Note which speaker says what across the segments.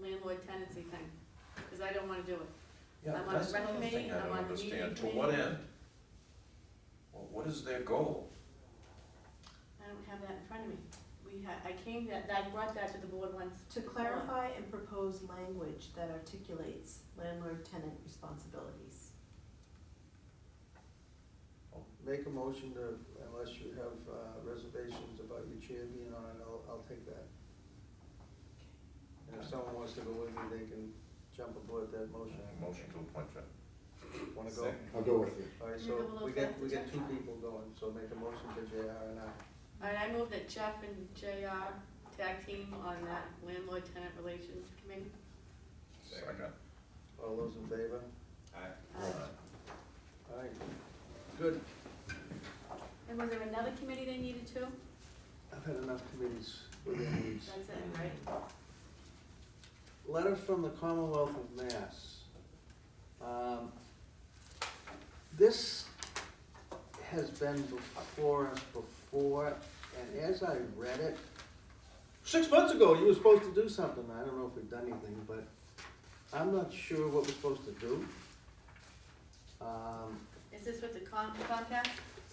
Speaker 1: landlord tenancy thing, because I don't wanna do it.
Speaker 2: Yeah,
Speaker 1: I'm on
Speaker 2: that's
Speaker 1: the rec
Speaker 2: another
Speaker 1: committee,
Speaker 2: thing I
Speaker 1: I'm
Speaker 2: don't
Speaker 1: on the meeting
Speaker 2: understand, to
Speaker 1: committee.
Speaker 2: what end? Well, what is their goal?
Speaker 1: I don't have that in front of me. We had, I came, that, I brought that to the board once. Uh,
Speaker 3: To clarify and propose language that articulates landlord-tenant responsibilities.
Speaker 4: Make a motion to, unless you have uh, reservations about your chair being on it, I'll, I'll take that. And if someone wants to go with me, they can jump aboard that motion.
Speaker 2: Motion to appoint Jeff.
Speaker 4: Wanna go?
Speaker 2: Second.
Speaker 5: I'll go with you.
Speaker 4: All right,
Speaker 1: Can you go
Speaker 4: so
Speaker 1: below
Speaker 4: we get,
Speaker 1: that
Speaker 4: we get two
Speaker 1: projection?
Speaker 4: people going, so make a motion for JR and I.
Speaker 1: All right, I move that Jeff and JR tag team on that landlord tenant relations committee.
Speaker 2: Second.
Speaker 4: All those in favor?
Speaker 1: Uh,
Speaker 4: All right, good.
Speaker 1: And was there another committee they needed too?
Speaker 4: I've had enough committees with their needs.
Speaker 1: That's it, right?
Speaker 4: Letter from the Commonwealth of Mass. Um, This has been before us before, and as I read it, six months ago, you were supposed to do something. I don't know if we've done anything, but I'm not sure what we're supposed to do. Um,
Speaker 1: Is this with the Com- Comcast?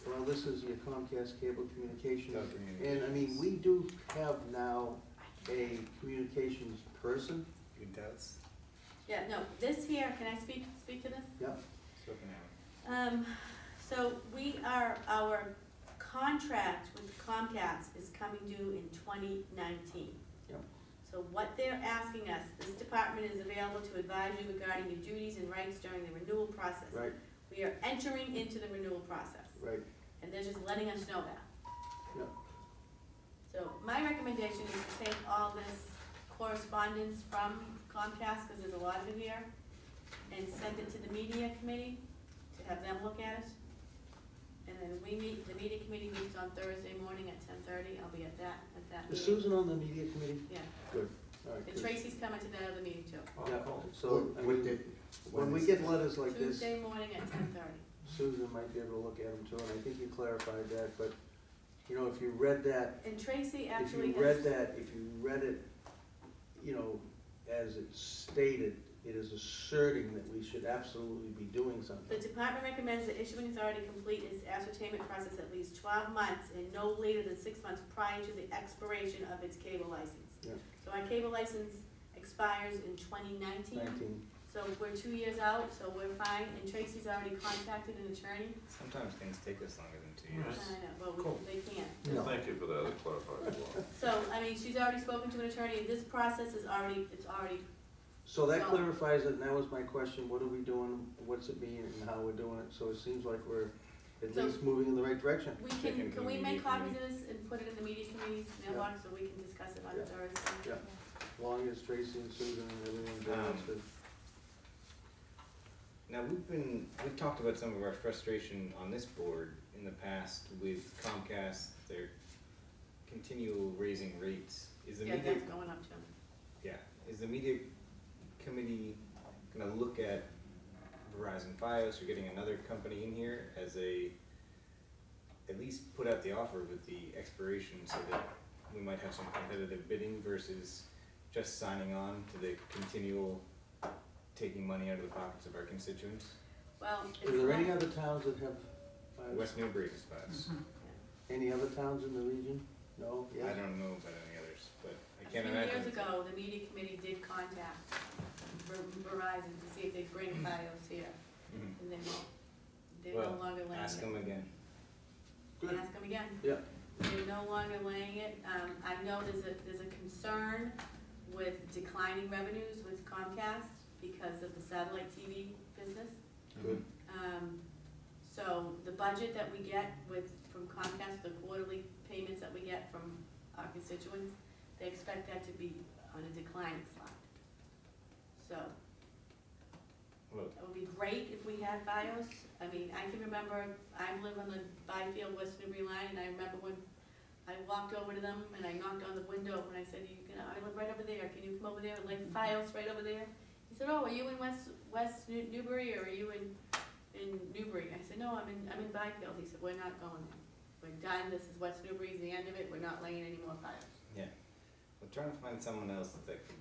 Speaker 4: Well, this is your Comcast cable communications.
Speaker 5: Telecommunications.
Speaker 4: And I mean, we do have now a communications person.
Speaker 5: Who does?
Speaker 1: Yeah, no, this here, can I speak, speak to this?
Speaker 4: Yep.
Speaker 1: Um, so we are, our contract with Comcast is coming due in twenty nineteen.
Speaker 4: Yep.
Speaker 1: So what they're asking us, this department is available to advise you regarding your duties and rights during the renewal process.
Speaker 4: Right,
Speaker 1: We are entering into the renewal process,
Speaker 4: right.
Speaker 1: and they're just letting us know that.
Speaker 4: Yep.
Speaker 1: So my recommendation is to take all this correspondence from Comcast, because there's a lot of it here, and send it to the media committee to have them look at it. And then we meet, the media committee meets on Thursday morning at ten thirty, I'll be at that, at that
Speaker 4: Is
Speaker 1: meeting.
Speaker 4: Susan on the media committee?
Speaker 1: Yeah,
Speaker 4: Good. All right,
Speaker 1: and
Speaker 4: good.
Speaker 1: Tracy's coming to that other meeting too.
Speaker 4: Oh, Yeah, so,
Speaker 5: So,
Speaker 4: I
Speaker 5: when
Speaker 4: mean,
Speaker 5: did,
Speaker 4: when we get letters like this,
Speaker 1: Tuesday morning at ten thirty.
Speaker 4: Susan might be able to look at them too, and I think you clarified that, but, you know, if you read that,
Speaker 1: And Tracy
Speaker 4: if
Speaker 1: actually
Speaker 4: you
Speaker 1: has.
Speaker 4: read that, if you read it, you know, as it's stated, it is asserting that we should absolutely be doing
Speaker 1: The
Speaker 4: something.
Speaker 1: department recommends the issuing authority complete its ascertainment process at least twelve months and no later than six months prior to the expiration of its cable license.
Speaker 4: Yeah.
Speaker 1: So our cable license expires in twenty nineteen,
Speaker 4: Nineteen,
Speaker 1: so we're two years out, so we're fine, and Tracy's already contacted an attorney.
Speaker 5: Sometimes things take us longer than two years.
Speaker 1: I know,
Speaker 2: Cool.
Speaker 1: well, we, they can't.
Speaker 4: no,
Speaker 2: Thank you for that, it clarifies a lot.
Speaker 1: So, I mean, she's already spoken to an attorney, this process is already, it's already,
Speaker 4: so that
Speaker 1: No.
Speaker 4: clarifies it, and that was my question, what are we doing, what's it mean, and how we're doing it, so it seems like we're at
Speaker 1: So-
Speaker 4: least moving in the right direction.
Speaker 1: we
Speaker 5: Taken
Speaker 1: can,
Speaker 5: to the
Speaker 1: can we
Speaker 5: media
Speaker 1: make copies of this and put it in the media committee's mailbox so we can discuss it on
Speaker 4: Yeah.
Speaker 1: Thursday?
Speaker 4: Yeah. long as Tracy and Susan and everyone's
Speaker 5: Um,
Speaker 4: doing it's good.
Speaker 5: Now, we've been, we've talked about some of our frustration on this board in the past with Comcast, their continual raising rates. Is the
Speaker 1: Yeah,
Speaker 5: media,
Speaker 1: that's going up too.
Speaker 5: yeah, is the media committee gonna look at Verizon Fios or getting another company in here as a, at least put out the offer with the expiration so that we might have some competitive bidding versus just signing on to the continual taking money out of the pockets of our constituents?
Speaker 1: Well, it's.
Speaker 4: Are there any
Speaker 1: not-
Speaker 4: other towns that have, uh,
Speaker 5: West Newbury is best.
Speaker 4: any other towns in the region? No,
Speaker 5: I
Speaker 4: yes?
Speaker 5: don't know about any others, but I
Speaker 1: A few
Speaker 5: can't imagine.
Speaker 1: years ago, the media committee did contact Ver- Verizon to see if they'd bring Fios here,
Speaker 5: Mhm.
Speaker 1: and they won't. They're no
Speaker 5: Mm-hmm. Well,
Speaker 1: longer laying it.
Speaker 5: Ask them again.
Speaker 4: Good.
Speaker 1: Ask them again.
Speaker 4: Yeah.
Speaker 1: They're no longer laying it. Um, I know there's a, there's a concern with declining revenues with Comcast because of the satellite TV business.
Speaker 4: Good.
Speaker 1: Um, so the budget that we get with, from Comcast, the quarterly payments that we get from our constituents, they expect that to be on a declining slide. So
Speaker 5: Well,
Speaker 1: it would be great if we had BIOS. I mean, I can remember, I live on the Byfield West Newbury line, and I remember when I walked over to them and I knocked on the window and I said, you can, I live right over there, can you come over there, like BIOS right over there? He said, oh, are you in West, West New- Newbury or are you in, in Newbury? I said, no, I'm in, I'm in Byfield. He said, we're not going there. We're done, this is West Newbury's the end of it, we're not laying any more BIOS.
Speaker 5: yeah. We're trying to find someone else that could